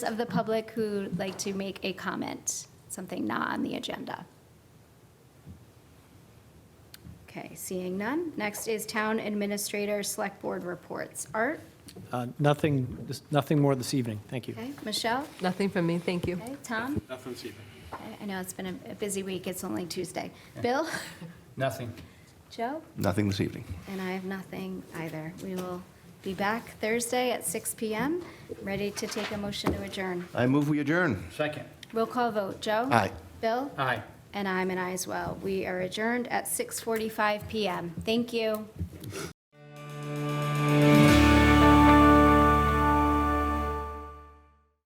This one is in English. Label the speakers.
Speaker 1: of the public who'd like to make a comment, something not on the agenda? Okay, seeing none. Next is Town Administrator Select Board Reports. Art?
Speaker 2: Uh, Nothing, just nothing more this evening. Thank you.
Speaker 1: Okay, Michelle?
Speaker 3: Nothing from me, thank you.
Speaker 1: Okay, Tom?
Speaker 4: Nothing this evening.
Speaker 1: Okay, I know it's been a- a busy week, it's only Tuesday. Bill?
Speaker 5: Nothing.
Speaker 1: Joe?
Speaker 6: Nothing this evening.
Speaker 1: And I have nothing either. We will be back Thursday at 6 PM, ready to take a motion to adjourn.
Speaker 6: I move we adjourn.
Speaker 5: Second.
Speaker 1: Roll call vote. Joe?
Speaker 6: Aye.
Speaker 1: Bill?
Speaker 5: Aye.
Speaker 1: And I'm an aye as well. We are adjourned at 6:45 PM. Thank you.